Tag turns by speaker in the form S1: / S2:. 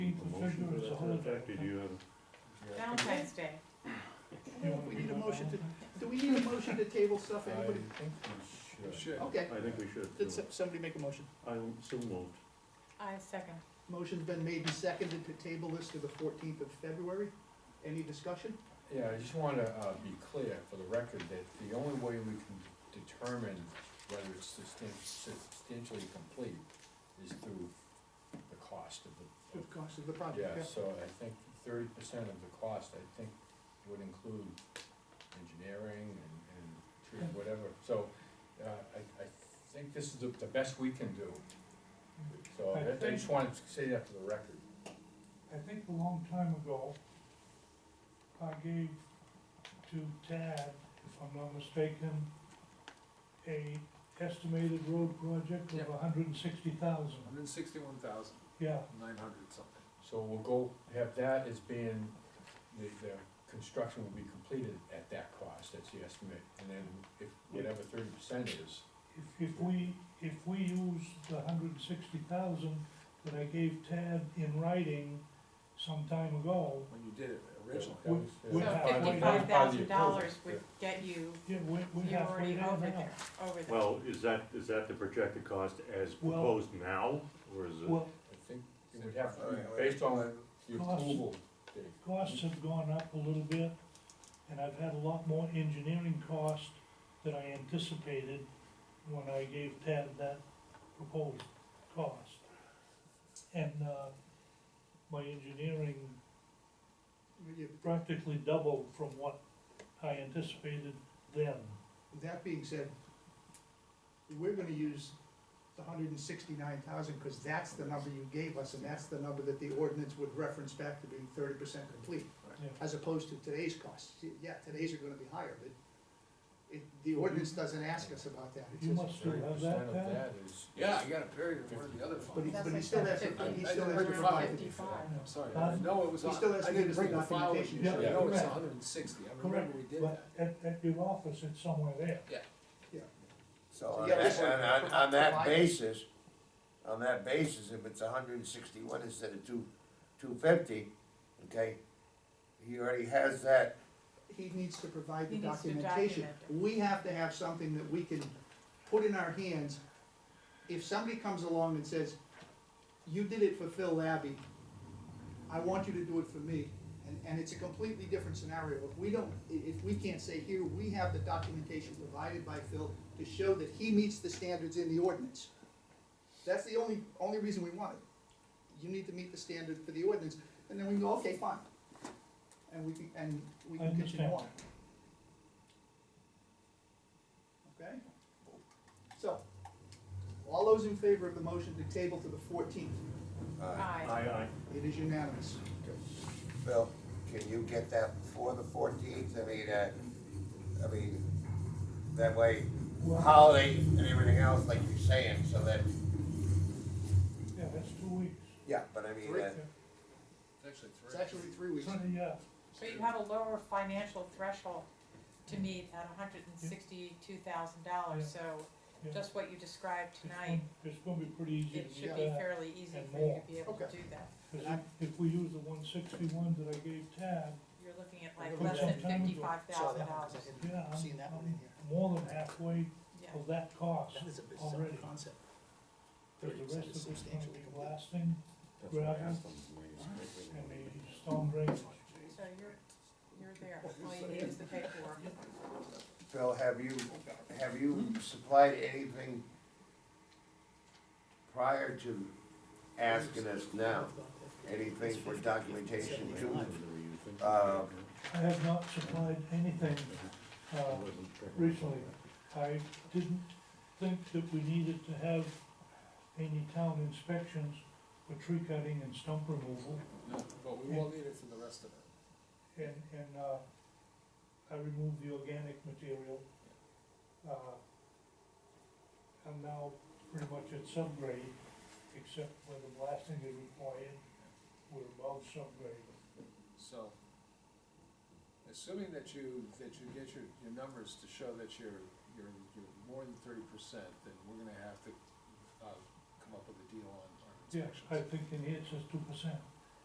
S1: motion to that effect, or do you have?
S2: Valentine's Day.
S3: I don't know if we need a motion to, do we need a motion to table stuff, anybody?
S4: We should.
S3: Okay,
S1: I think we should.
S3: did some- somebody make a motion?
S1: I'm so moved.
S2: I second.
S3: Motion's been made and seconded to table this to the fourteenth of February. Any discussion?
S4: Yeah, I just wanna, uh, be clear for the record that the only way we can determine whether it's substan- substantially complete is through the cost of the.
S3: The
S4: of-
S3: cost of the project,
S4: Yeah,
S3: yeah.
S4: so I think thirty percent of the cost, I think, would include engineering and, and tree, whatever, so, uh, I, I think this is the, the best we can do. So I, I just wanted to say that for the record.
S5: I think a long time ago, I gave to Tad, if I'm not mistaken, a estimated road project
S6: Yep.
S5: of hundred and sixty thousand.
S6: Hundred and sixty-one thousand,
S5: Yeah,
S6: nine hundred something.
S4: So we'll go, have that as being, the, the construction will be completed at that cost, that's the estimate, and then if, whatever thirty percent is.
S5: if, if we, if we use the hundred and sixty thousand that I gave Tad in writing some time ago,
S6: When you did it originally,
S4: that was-
S5: We- we
S2: So
S5: have-
S2: fifty-five thousand dollars
S4: Yeah.
S2: would get you,
S5: yeah, we, we
S2: you're
S5: have, we
S2: already
S5: have
S2: over
S5: now.
S2: there, over there.
S1: Well, is that, is that the projected cost as
S5: Well-
S1: proposed now, or is it?
S5: Well,
S4: I think it would have, to be based on the
S5: Cost.
S4: approval, Dave.
S5: costs have gone up a little bit, and I've had a lot more engineering cost than I anticipated when I gave Tad that proposed cost. And, uh, my engineering
S3: You-
S5: practically doubled from what I anticipated then.
S3: That being said, we're gonna use the hundred and sixty-nine thousand, because that's the number you gave us, and that's the number that the ordinance would reference back to being thirty percent complete,
S5: Yeah.
S3: as opposed to today's costs. Yeah, today's are gonna be higher, but it, the ordinance doesn't ask us about that. It
S5: You
S3: says-
S5: must still
S4: Thirty
S5: have
S4: percent
S5: that,
S4: of
S5: Tad?
S4: that is.
S6: Yeah, I got a period of one of the other
S3: But he,
S6: funds.
S2: That's
S3: but he
S2: like
S3: still has,
S2: fifty.
S3: to- he
S6: I didn't
S3: still has to
S6: bring the
S3: provide.
S6: file.
S3: it.
S2: Fifty-five.
S6: I'm sorry,
S5: Huh?
S3: Uh,
S6: I know it was,
S3: He
S6: on-
S3: still has
S6: I
S3: to
S6: didn't
S3: give
S6: bring
S3: us
S6: the
S3: the
S6: file with me, so I
S5: documentation.
S6: know it's
S5: Yeah.
S6: hundred and sixty, I
S5: Correct,
S6: remember we did
S5: but
S6: that.
S5: at, at your office, it's somewhere there.
S7: So on
S3: Yeah,
S7: that,
S3: that's
S7: on,
S3: what-
S7: on- on that
S3: provide-
S7: basis, on that basis, if it's hundred and sixty-one instead of two, two fifty, okay? He already has that,
S3: He needs to provide the
S2: He needs to
S3: documentation.
S2: document it.
S3: We have to have something that we can put in our hands. If somebody comes along and says, you did it for Phil Labby, I want you to do it for me, and, and it's a completely different scenario. If we don't, i- if we can't say here, we have the documentation provided by Phil to show that he meets the standards in the ordinance. That's the only, only reason we want it. You need to meet the standard for the ordinance, and then we go, okay, fine. And we can, and we
S5: I
S3: can continue
S5: understand.
S3: on. Okay? So, all those in favor of the motion to table to the fourteenth,
S7: uh,
S2: Aye.
S1: Aye,
S3: it is unanimous.
S7: Phil, can you get that before the fourteenth? I mean, uh, I mean, that way, holiday and everything else, like you're saying, so that,
S5: Yeah, that's two weeks.
S7: yeah, but I mean, uh,
S6: It's actually
S3: It's
S6: three.
S3: actually three weeks.
S5: So, yeah,
S2: So you have a lower financial threshold to meet at hundred and sixty-two thousand dollars, so
S5: yeah.
S2: just what you described
S5: It's
S2: tonight,
S5: gonna- It's gonna be pretty easy.
S2: it
S5: to
S2: should
S5: get
S2: be
S5: that.
S2: fairly easy
S5: and
S2: for you
S5: more.
S2: to be able to
S3: Okay.
S2: do that.
S5: 'Cause if- if we use the one sixty-one that I gave Tad,
S2: You're looking at
S3: Put
S2: like less than
S5: some time into it.
S2: fifty-five
S3: Saw
S2: thousand
S3: that one,
S2: dollars.
S3: 'cause I
S5: yeah,
S3: hadn't seen
S5: I'm,
S3: that one in
S5: I'm
S3: here.
S5: more than halfway
S2: Yeah,
S5: of that cost.
S3: That is a bizarre
S5: already.
S3: concept.
S5: Cause the rest of it's gonna
S3: Substantially
S5: be
S3: complete.
S5: blasting
S1: That's what I asked them.
S5: and the storm drainage.
S2: so you're, you're there, all you need is the paperwork.
S7: Phil, have you, have you supplied anything prior to asking us now? Anything for documentation to Uh,
S5: I have not supplied anything, uh, recently. I didn't think that we needed to have any town inspections for tree cutting and stump removal.
S6: No, But we will need it for the rest of it.
S5: And, and, uh, I removed the organic material. Uh, I'm now pretty much at subgrade, except where the blasting is required, we're above subgrade.
S6: So, assuming that you, that you get your, your numbers to show that you're, you're, you're more than thirty percent, then we're gonna have to, uh, come up with a deal on, on
S5: Yeah,
S6: inspections.
S5: I think in here it says two percent.